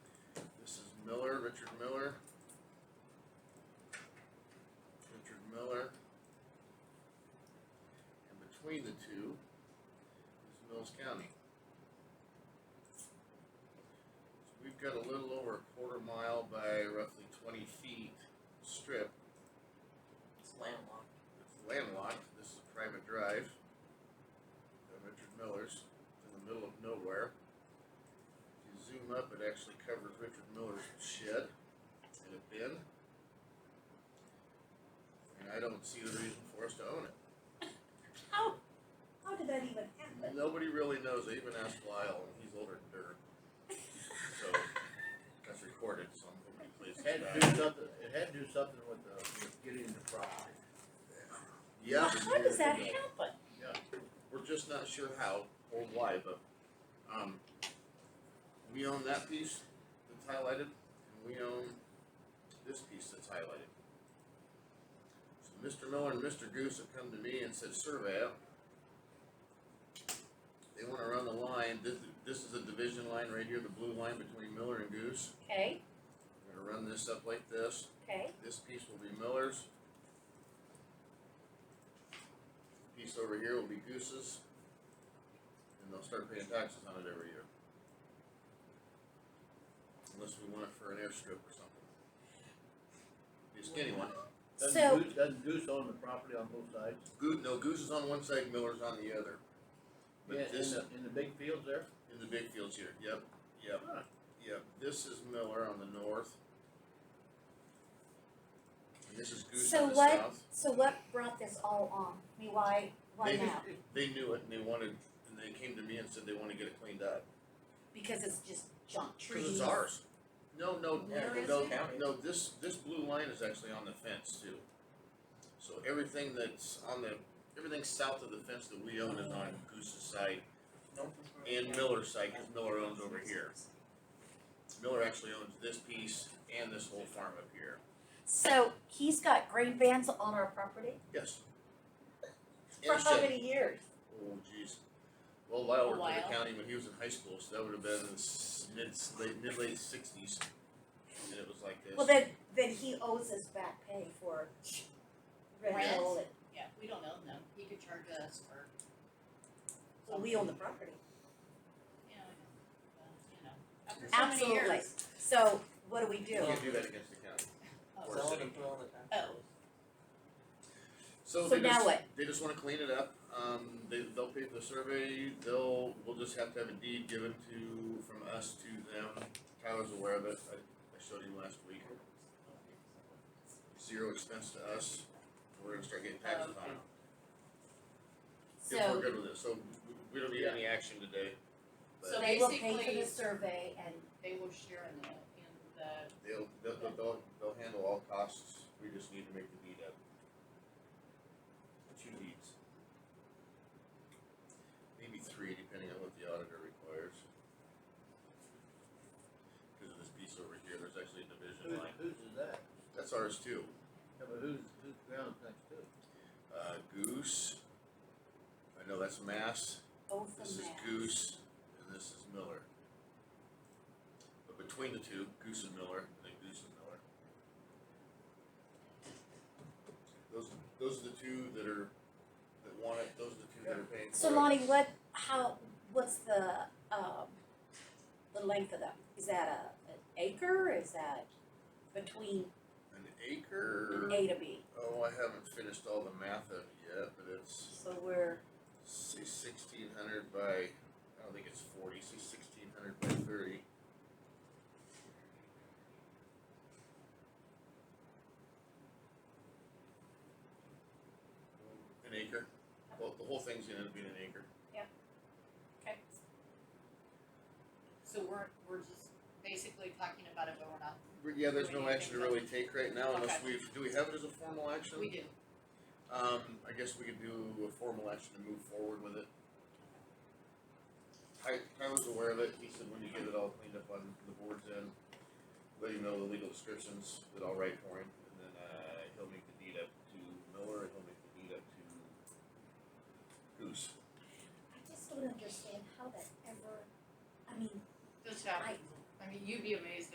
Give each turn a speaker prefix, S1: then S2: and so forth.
S1: Richard Miller. Richard Miller. And between the two is Mills County. So we've got a little over a quarter mile by roughly twenty feet strip
S2: It's landlocked.
S1: it's landlocked, this is a private drive. By Richard Miller's, It's in the middle of nowhere. If you zoom up, it actually covers Richard Miller's shed and a bin. And I don't see the reason for us to own it.
S3: How, how did that even happen?
S1: Nobody really knows, I even asked Lyle, and he's older than dirt. So, that's recorded, so I'm hoping he plays
S4: Had
S1: it
S4: to
S1: back.
S4: do something, it had to do something with the, with getting the property.
S1: Yeah.
S3: How does that happen?
S1: We're just not sure how or why, but, um, we own that piece that's highlighted, and we own this piece that's highlighted. So Mr. Miller and Mr. Goose have come to me and said, survey it. They wanna run the line, this, this is a division line right here, the blue line between Miller and Goose.
S3: Okay,
S1: We're gonna run this up like this,
S3: okay,
S1: this piece will be Miller's. Piece over here will be Goose's. And they'll start paying taxes on it every year. Unless we want it for an airstrip or something. Be a skinny one.
S3: So-
S4: Doesn't Goose, doesn't Goose own the property on both sides?
S1: Goo, no, Goose is on one side, Miller's on the other. But
S4: Yeah,
S1: this-
S4: in the, in the big fields there?
S1: In the big fields here, yep, yep,
S4: Huh.
S1: yep, this is Miller on the north. And this is Goose
S3: So
S1: on the
S3: what-
S1: south.
S3: so what brought this all on? I mean, why, why
S1: They just-
S3: now?
S1: They knew it and they wanted, and they came to me and said they wanna get it cleaned up.
S3: Because it's just junk trees.
S1: Cause it's ours. No, no,
S2: Where
S1: no,
S2: is
S1: no,
S2: it?
S1: no, this, this blue line is actually on the fence too. So everything that's on the, everything south of the fence that we own is on Goose's side and Miller's side, cause Miller owns over here. Miller actually owns this piece and this whole farm up here.
S3: So he's got grain vans on our property
S1: Yes.
S3: for
S1: And
S3: how
S1: shed.
S3: many years?
S1: Oh jeez. Well, Lyle worked for
S2: Lyle?
S1: the county when he was in high school, so that would have been in the s- mid s- late mid late sixties. And it was like this.
S3: Well, then, then he owes us back pay for rental, and-
S2: Yeah, we don't own them. He could charge us for,
S3: so we own the property.
S2: you know, uh, you know, after so many years.
S3: Absolutely. So what do we
S1: you
S3: do?
S1: can't do that against the county.
S2: Oh,
S1: Or-
S2: oh,
S1: So
S3: So
S1: they
S3: now
S1: just,
S3: what?
S1: they just wanna clean it up, um, they, they'll pay for the survey, they'll, we'll just have to have a deed given to, from us to them. Tyler's aware of it, I, I showed him last week. Zero expense to us, we're gonna start getting taxes on it, if we're
S3: Oh, So
S1: good with it, so we, we don't need any action today. But
S2: So
S3: they will pay for
S2: basically-
S3: the survey and
S2: they will share in the, in the,
S1: They'll, they'll, they'll- they'll, they'll handle all costs, we just need to make the deed up. Two deeds. Maybe three, depending on what the auditor requires. Cause of this piece over here, there's actually a
S4: Who,
S1: division line,
S4: whose is that?
S1: that's ours too,
S4: Yeah, but whose, whose ground's next to it?
S1: uh, Goose. I know that's Mass,
S3: both
S1: this is
S3: of them.
S1: Goose, and this is Miller. But between the two, Goose and Miller, and then Goose and Miller. Those, those are the two that are, that want it, those are the two that are paying for it.
S3: So Lonnie, what, how, what's the, um, the length of that? Is that a, an acre? Is that between
S1: An acre,
S3: A to B?
S1: oh, I haven't finished all the math of it yet, but it's
S3: So we're,
S1: say sixteen hundred by, I don't think it's forty, say sixteen hundred by thirty. An acre, well, the whole thing's gonna end up being an acre,
S2: so we're, we're just basically talking about it, but we're not,
S1: But yeah, there's
S2: Do
S1: no
S2: we need
S1: action to really
S2: anything?
S1: take right now unless
S2: Okay.
S1: we've, do we have it as a formal action?
S2: we do.
S1: Um, I guess we could do a formal action to move forward with it. I, I was aware of it, he said when you get it all cleaned up on the board's end, let him know the legal descriptions that I'll write for him, and then, uh, he'll make the deed up to Miller, and he'll make the deed up to Goose.
S3: I just don't understand how that ever, I mean,
S2: This happens. I mean, you'd be amazed